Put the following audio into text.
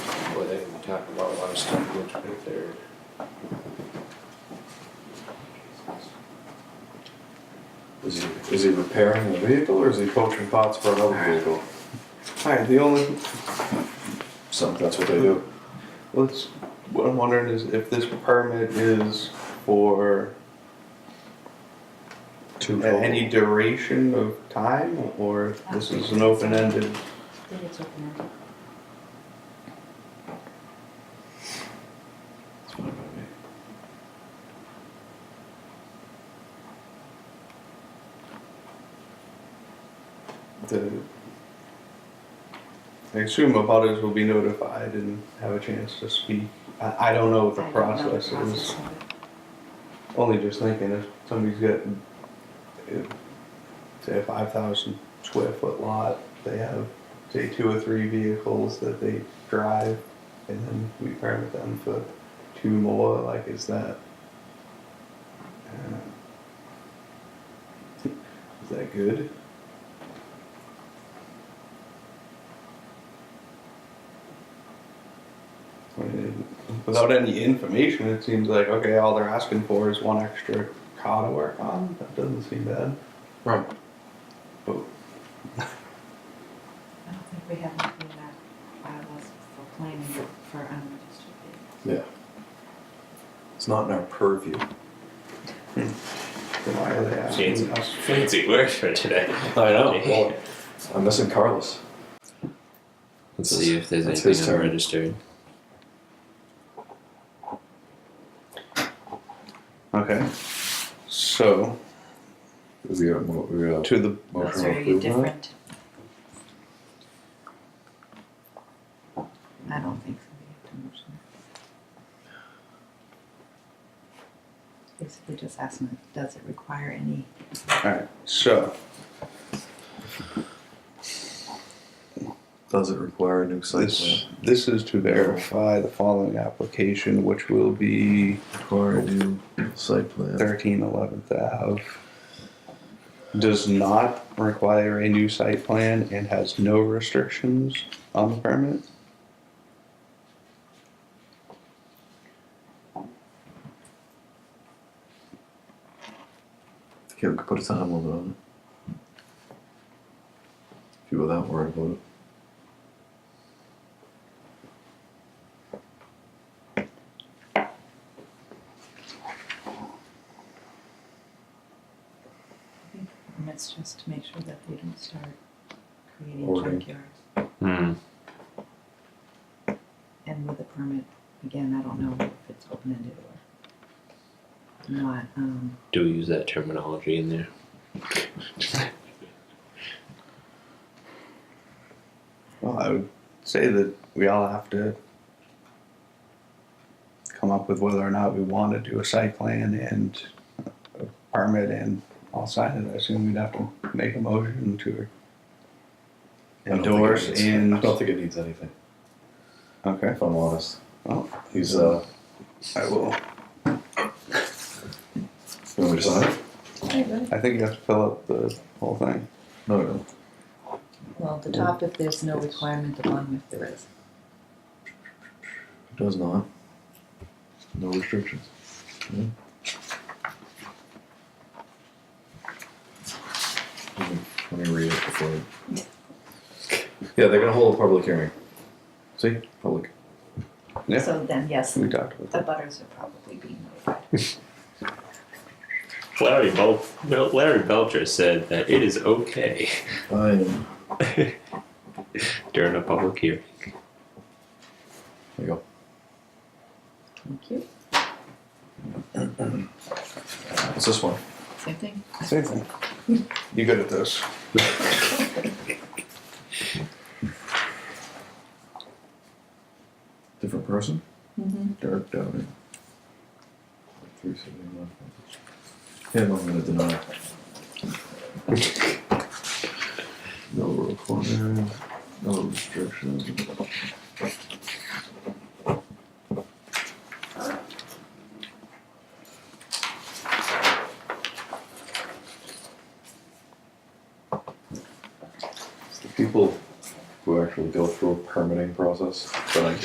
talk about a lot of stuff that's right there. Is he, is he repairing the vehicle or is he poaching pots for another vehicle? Alright, the only, Some, that's what they do. let's, what I'm wondering is if this permit is for Two any duration of time, or this is an open-ended, Did it open up? total. the, I assume abutters will be notified and have a chance to speak. I, I don't know what the I don't know process is. process of it. Only just thinking if somebody's got, if, say a five thousand square foot lot, they have, say, two or three vehicles that they drive, and then we permit them for two more, like, is that? uh, Is that good? I mean, without any information, it seems like, okay, all they're asking for is one extra car to work on. That doesn't seem bad. Right. But I don't think we have anything that bylaws for planning for um, unregistered vehicles. Yeah. It's not in our purview. then why are they asking Fancy, us? fancy word for today. I know. well, I'm missing Carlos. Let's That's- see if there's that's his anything turn. unregistered. Okay. So Is he, we got to the motion Those to are approve that? different. I don't think so, we have to motion. Basically just asking, does it require any? all right. So Does it require a new site this this is to verify the following application, which will be Require a new site plan. thirteen eleventh Ave. Does not require a new site plan and has no restrictions on the permit. Yeah, we could put a time limit on it. If you were that worried about it. And it's just to make sure that they don't start creating Hoarding. junkyards. Hmm. And with a permit, again, I don't know if it's open-ended or not, um, Do we use that terminology in there? Well, I would say that we all have to come up with whether or not we want to do a site plan and a permit and all sign it. I assume we'd have to make a motion to I don't think it endorse needs- I and. don't think it needs anything, Okay, if I'm honest. well, He's, uh, I will. you want me to sign it? I think you have to fill out the whole thing. No, I don't. well, the top if there's no requirement, the bottom if there is. It does not. No restrictions. Yeah. Let me- Let me read it before. I- Yeah, they're gonna hold a public hearing. See, public. Yeah. So then, yes, We talked about the that. butters are probably being notified. Larry, Bel- Bel- Larry Belcher said that it is okay I am. during a public hearing. There you go. Thank you. It's this one. Same thing. Same thing. You good at this? Different person. Mm-hmm. Derek Downey. Three seventy-one. Him, I'm gonna deny. No requirement, no restrictions. It's the people who actually go through a permitting process, but I